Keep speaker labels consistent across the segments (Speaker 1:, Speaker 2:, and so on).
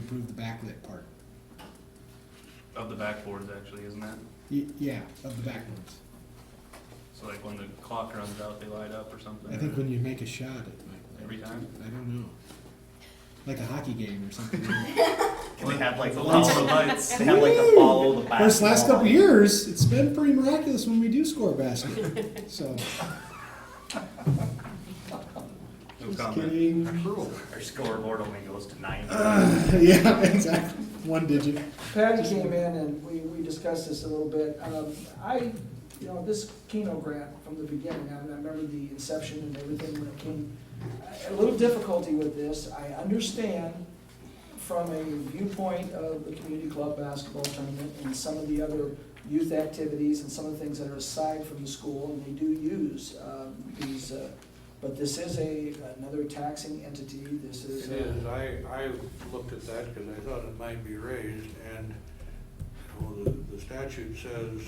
Speaker 1: approve the backlit part.
Speaker 2: Of the backboards, actually, isn't that?
Speaker 1: Y- Yeah, of the backwards.
Speaker 2: So like when the clock runs out, they light up or something?
Speaker 1: I think when you make a shot, it might.
Speaker 2: Every time?
Speaker 1: I don't know. Like a hockey game or something.
Speaker 3: Can they have like the
Speaker 2: All the
Speaker 3: follow,
Speaker 2: lights.
Speaker 3: they have like the follow the basketball?
Speaker 1: First last couple years, it's been pretty miraculous when we do score a basket. So,
Speaker 2: No
Speaker 1: just
Speaker 2: comment.
Speaker 1: kidding.
Speaker 3: Our scoreboard only goes to nine.
Speaker 1: Uh. Yeah, exactly. One digit.
Speaker 4: Patty came in and we, we discussed this a little bit. Um, I, you know, this Keno grant from the beginning, I I remember the inception and everything when it came. A little difficulty with this, I understand from a viewpoint of the community club basketball tournament and some of the other youth activities and some of the things that are aside from the school, and they do use, um, these, uh, but this is a, another taxing entity, this
Speaker 5: It
Speaker 4: is. uh, a-
Speaker 5: is, I, I looked at that because I thought it might be raised, and, well, the, the statute says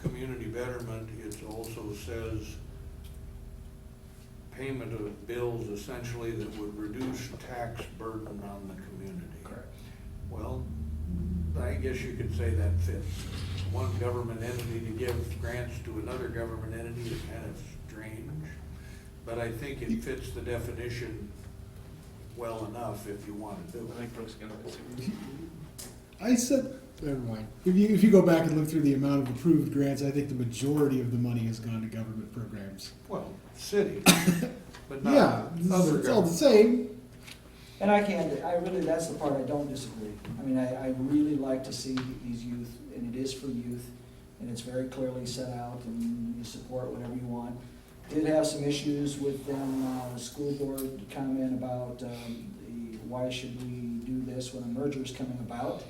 Speaker 5: community betterment, it also says payment of bills essentially that would reduce tax burden on the community.
Speaker 4: Correct.
Speaker 5: Well, I guess you could say that fits. One government entity to give grants to another government entity is kind of strange, but I think it fits the definition well enough if you want to do
Speaker 2: I
Speaker 5: it.
Speaker 2: think Brooke's gonna. see.
Speaker 1: I said, never mind. If you, if you go back and look through the amount of approved grants, I think the majority of the money has gone to government programs.
Speaker 5: Well, city, but
Speaker 1: Yeah,
Speaker 5: not other
Speaker 1: it's all the
Speaker 5: government.
Speaker 1: same.
Speaker 4: And I can't, I really, that's the part I don't disagree. I mean, I, I really like to see these youth, and it is for youth, and it's very clearly set out, and you support whatever you want. Did have some issues with them, uh, the school board comment about, um, the, why should we do this when a merger is coming about?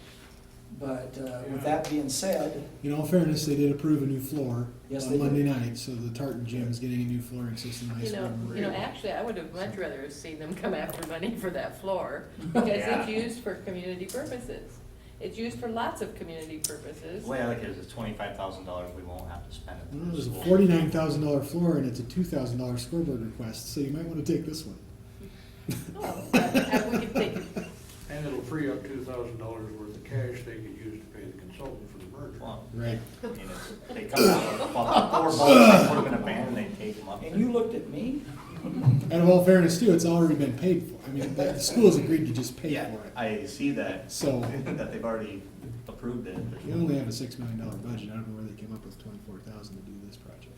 Speaker 4: But, uh, with that being said,
Speaker 1: In all fairness, they did approve a new floor
Speaker 4: Yes,
Speaker 1: on
Speaker 4: they did.
Speaker 1: Monday night, so the Tartan Gym is getting a new flooring system. high
Speaker 6: You
Speaker 1: school.
Speaker 6: know, you know, actually, I would have much rather have seen them come after money for that floor, because
Speaker 3: Yeah.
Speaker 6: it's used for community purposes. It's used for lots of community purposes.
Speaker 3: The way I look at it is twenty-five thousand dollars we won't have to spend at
Speaker 1: Well,
Speaker 3: the
Speaker 1: There's a
Speaker 3: school.
Speaker 1: Mm, forty-nine thousand dollar floor and it's a two thousand dollar scoreboard request, so you might want to take this one.
Speaker 6: Oh, but, uh, we could take-
Speaker 5: And it'll free up two thousand dollars worth of cash they could use to pay the consultant for the merger.
Speaker 3: Well,
Speaker 1: Right.
Speaker 3: I mean, it's- They come out with, well, four bucks, I put them in a van and they take them up.
Speaker 4: and you looked at me,
Speaker 1: And of all fairness too, it's already been paid for. I mean, the the school's agreed to just pay
Speaker 3: Yeah,
Speaker 1: for it.
Speaker 3: I see that,
Speaker 1: So
Speaker 3: that they've already approved it.
Speaker 1: we only have a six million dollar budget. I don't know where they came up with twenty-four thousand to do this project.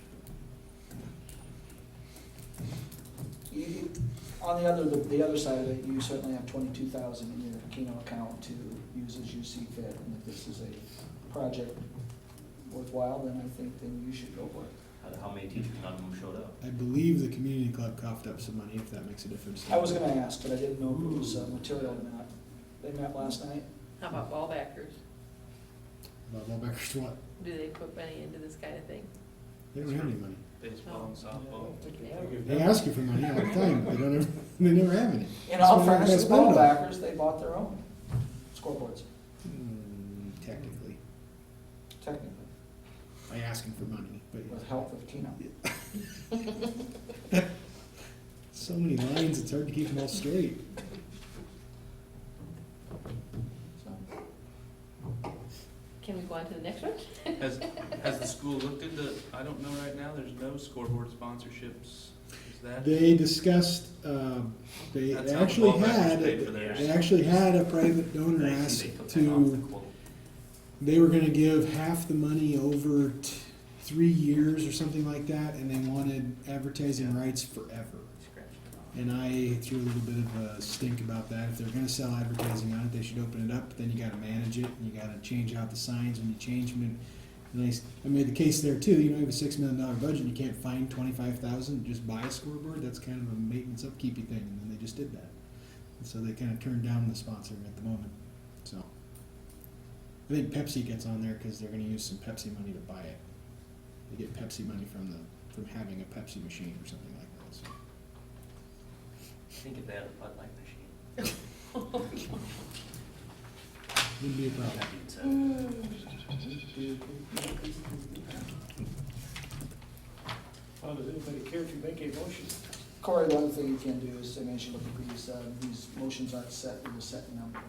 Speaker 4: You- you- On the other, the the other side of it, you certainly have twenty-two thousand in your Keno account to use as you see fit. And if this is a project worthwhile, then I think then you should go for it.
Speaker 3: How- How many teachers, none of them showed up?
Speaker 1: I believe the community club coughed up some money, if that makes a difference.
Speaker 4: I was gonna ask, but I didn't know if it was uh, material or not. They met last night?
Speaker 6: How about ball backers?
Speaker 1: About Lowbacker's what?
Speaker 6: Do they put money into this kind of thing?
Speaker 1: They don't have any money.
Speaker 2: Baseball and softball.
Speaker 1: They ask you for money all the time, but they don't ever, they never have any.
Speaker 4: In
Speaker 1: That's why
Speaker 4: all
Speaker 1: they're
Speaker 4: fairness, the
Speaker 1: gonna
Speaker 4: ball
Speaker 1: spend it
Speaker 4: backers, they bought their own scoreboards,
Speaker 1: all. Hmm, Technically,
Speaker 4: technically,
Speaker 1: I ask him for money, but
Speaker 4: with help of Keno.
Speaker 1: so many lines, it's hard to keep them all straight.
Speaker 4: So,
Speaker 6: Can we go on to the next one?
Speaker 2: Has, has the school looked at the, I don't know right now, there's no scoreboard sponsorships. Is that?
Speaker 1: They discussed, um, they
Speaker 2: That's how the
Speaker 1: actually
Speaker 2: ball backers
Speaker 1: had,
Speaker 2: paid for theirs.
Speaker 1: they actually had a private donor
Speaker 3: They- they
Speaker 1: ask
Speaker 3: took that off the
Speaker 1: to,
Speaker 3: quote.
Speaker 1: they were gonna give half the money over t- three years or something like that, and they wanted advertising rights forever.
Speaker 3: Scratch it off.
Speaker 1: And I threw a little bit of a stink about that. If they're gonna sell advertising on it, they should open it up, but then you gotta manage it, and you gotta change out the signs when you change them. And- And I, s- I made the case there too, you know, you have a six million dollar budget, and you can't find twenty-five thousand, just buy a scoreboard, that's kind of a maintenance upkeepy thing, and then they just did that. And so they kinda turned down the sponsoring at the moment, so. I think Pepsi gets on there, cause they're gonna use some Pepsi money to buy it. They get Pepsi money from the, from having a Pepsi machine or something like that, so.
Speaker 3: Think if they had a Bud Light machine.
Speaker 1: Wouldn't be a problem.
Speaker 3: That being said,
Speaker 7: How does anybody care to make a motion?
Speaker 4: Corey, the other thing you can do is, I mean, you should look at these, uh, these motions aren't set with a set number.